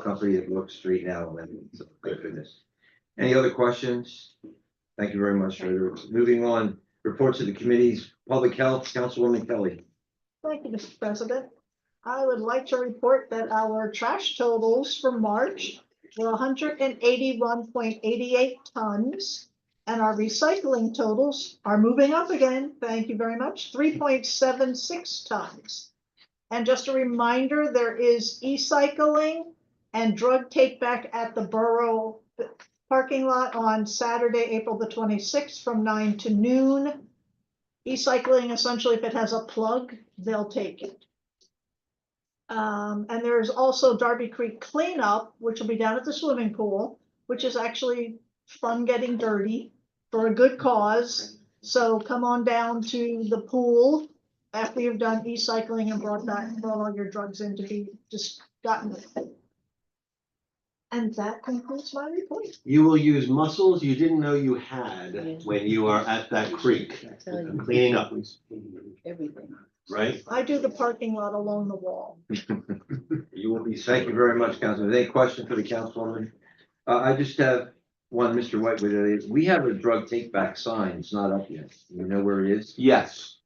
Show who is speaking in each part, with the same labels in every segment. Speaker 1: company that works straight now, and so, thank goodness. Any other questions? Thank you very much, Treasurer. Moving on, reports of the committees, Public Health, Councilwoman Kelly.
Speaker 2: Thank you, Mr. President. I would like to report that our trash totals for March were hundred and eighty-one point eighty-eight tons. And our recycling totals are moving up again, thank you very much, three point seven six tons. And just a reminder, there is e-cycling and drug take back at the Borough parking lot on Saturday, April the twenty-sixth from nine to noon. E-cycling, essentially, if it has a plug, they'll take it. Um, and there's also Darby Creek cleanup, which will be down at the swimming pool, which is actually fun getting dirty for a good cause. So come on down to the pool after you've done e-cycling and brought that, brought all your drugs in to be just gotten. And that concludes my report.
Speaker 3: You will use muscles you didn't know you had when you are at that creek
Speaker 4: Tell you
Speaker 3: cleaning up,
Speaker 4: everything.
Speaker 3: right?
Speaker 2: I do the parking lot along the wall.
Speaker 3: You will be.
Speaker 1: Thank you very much, Councilman. Any question for the councilwoman? Uh, I just have one, Mr. White, with it. we have a drug take back sign. It's not up yet. You know where it is?
Speaker 3: Yes.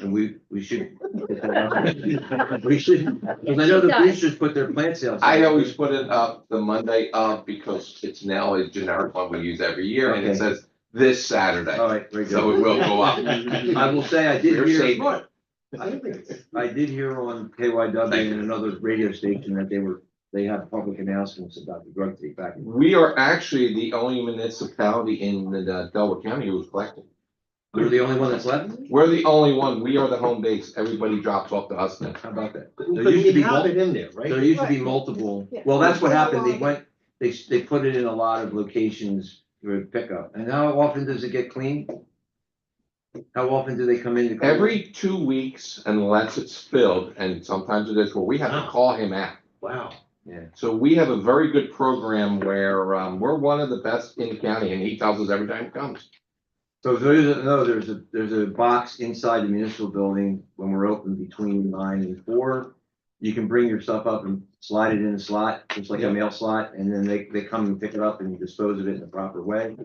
Speaker 1: And we, we should. get that up. We should, because I know the boosters put their plant sales.
Speaker 5: I always put it up the Monday of because it's now a generic one we use every year and
Speaker 1: Okay. Oh,
Speaker 5: it says this Saturday.
Speaker 1: All right, very
Speaker 5: So
Speaker 1: good.
Speaker 5: it will go up.
Speaker 1: I will say I did
Speaker 5: We're
Speaker 1: hear.
Speaker 5: saving it.
Speaker 1: I did hear on KYW and another radio station that they were, they had public announcements about the drug take back.
Speaker 5: We are actually the only municipality in the uh, Delaware County who's collecting.
Speaker 1: We're the only one that's left?
Speaker 5: We're the only one. We are the home base. Everybody drops off to us now.
Speaker 1: How about that?
Speaker 3: But
Speaker 1: used to be
Speaker 3: you have
Speaker 1: one-
Speaker 3: it in there,
Speaker 1: There
Speaker 3: right?
Speaker 1: used to be multiple, well, that's what happened. They went, they, they put it in a lot of locations for pickup. And how often does it get cleaned? How often do they come in to? clean?
Speaker 5: Every two weeks unless it's filled and sometimes it is where we have to call him out.
Speaker 3: Wow.
Speaker 5: So we have a very good program where um, we're one of the best in the county and he tells us every time he comes.
Speaker 1: So if there isn't, no, there's a, there's a box inside the municipal building when we're open between nine and four. You can bring your stuff up and slide it in a slot, just like a
Speaker 5: Yeah.
Speaker 1: mail slot, and then they, they come and pick it up and you dispose of it in the proper way.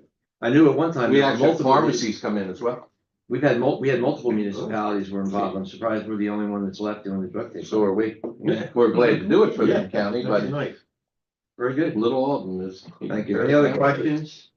Speaker 1: I knew at one time.
Speaker 5: We
Speaker 1: there were
Speaker 5: actually have Oh.
Speaker 1: multiple-
Speaker 5: pharmacies come in as well.
Speaker 1: We've had mul, we had multiple municipalities were involved. I'm surprised we're the only one that's left doing the drug test.
Speaker 5: So are we.
Speaker 1: Yeah.
Speaker 5: We're glad to do it for the county,
Speaker 3: That's
Speaker 5: but
Speaker 3: nice.
Speaker 1: Very good.
Speaker 5: little Alden is.
Speaker 1: Thank you. Any other questions?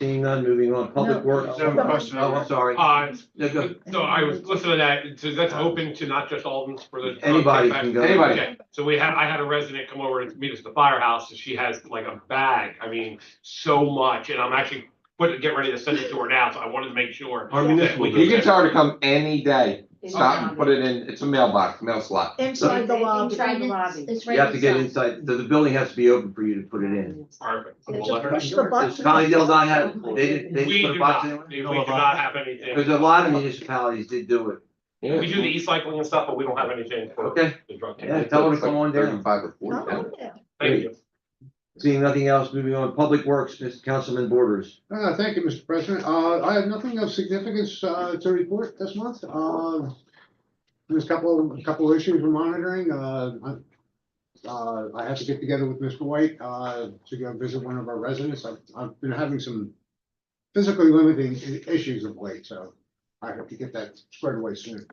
Speaker 1: Seeing none, moving on. Public
Speaker 4: No.
Speaker 1: Works.
Speaker 6: I have a question.
Speaker 1: Oh, I'm sorry.
Speaker 6: Uh,
Speaker 1: No, go.
Speaker 6: no, I was listening to that, so that's open to not just Alden's for the.
Speaker 1: Anybody can go.
Speaker 5: Anybody.
Speaker 6: Okay, So we had, I had a resident come over and meet us at the firehouse, and she has like a bag, I mean, so much, and I'm actually putting, getting ready to send it to her now, so I wanted to make sure.
Speaker 3: Our municipal.
Speaker 6: You
Speaker 5: You can
Speaker 3: building.
Speaker 5: tell her to come any day. Stop and put it in, it's a mailbox, mail slot.
Speaker 2: Inside the lobby.
Speaker 4: Inside the lobby.
Speaker 7: It's right
Speaker 1: You have to get
Speaker 7: inside.
Speaker 1: inside, the, the building has to be open for you to put it in.
Speaker 6: Perfect.
Speaker 2: They
Speaker 6: We'll
Speaker 2: just
Speaker 6: let her know.
Speaker 2: push the button.
Speaker 1: Does Colony Dale not have, they didn't, they
Speaker 6: We
Speaker 1: didn't put
Speaker 6: do
Speaker 1: a box in?
Speaker 6: not, we do not have
Speaker 1: Because
Speaker 6: anything,
Speaker 1: a lot of municipalities did do it.
Speaker 6: we do the e-cycling and stuff, but we don't have anything for
Speaker 1: Okay,
Speaker 6: the drug
Speaker 1: Yeah.
Speaker 6: test.
Speaker 1: tell her to come on down.
Speaker 5: Thirty-five or forty.
Speaker 2: Not on there.
Speaker 6: Thank you.
Speaker 1: seeing nothing else, moving on. Public Works, Mr. Councilman Borders.
Speaker 8: Uh, thank you, Mr. President. Uh, I have nothing of significance, uh, to report this month. Uh, there's a couple, a couple of issues we're monitoring. Uh, I- uh, I have to get together with Mr. White, uh, to go visit one of our residents. I've, I've been having some physically limiting i- issues of late, so I hope to get that squared away soon.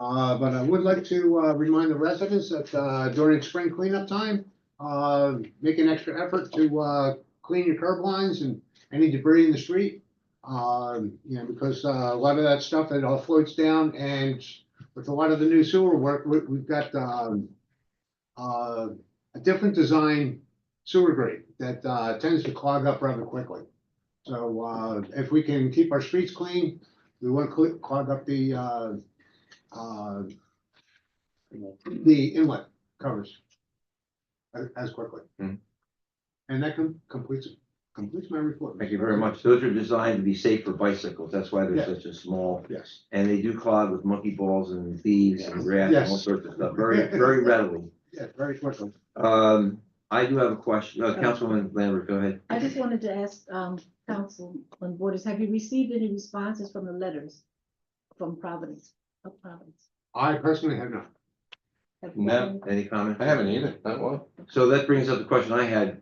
Speaker 8: Uh, but I would like to, uh, remind the residents that, uh, during spring cleanup time, uh, make an extra effort to, uh, clean your curb lines and any debris in the street. Um, you know, because uh, a lot of that stuff, it all floats down and with a lot of the new sewer work, we, we've got, um, uh, a different design sewer grate that, uh, tends to clog up rather quickly. So, uh, if we can keep our streets clean, we won't cl- clog up the, uh, uh, the inlet covers as, as quickly.
Speaker 1: Hmm.
Speaker 8: And that com- completes, completes my report.
Speaker 1: Thank you very much. Those are designed to be safe for bicycles. That's why they're
Speaker 8: Yeah.
Speaker 1: such a small,
Speaker 8: Yes.
Speaker 1: and they do clog with monkey balls and thieves and rats and all
Speaker 8: Yes.
Speaker 1: sorts of stuff, very, very readily.
Speaker 8: Yeah, very quickly.
Speaker 1: Um, I do have a question. Uh, Councilwoman Lambert, go ahead.
Speaker 4: I just wanted to ask, um, Councilman Borders, have you received any responses from the letters from Providence, of Providence?
Speaker 8: I personally have not.
Speaker 4: Have you
Speaker 5: No.
Speaker 4: been-
Speaker 1: Any comment?
Speaker 5: I haven't either, not one.
Speaker 1: So that brings up the question I had.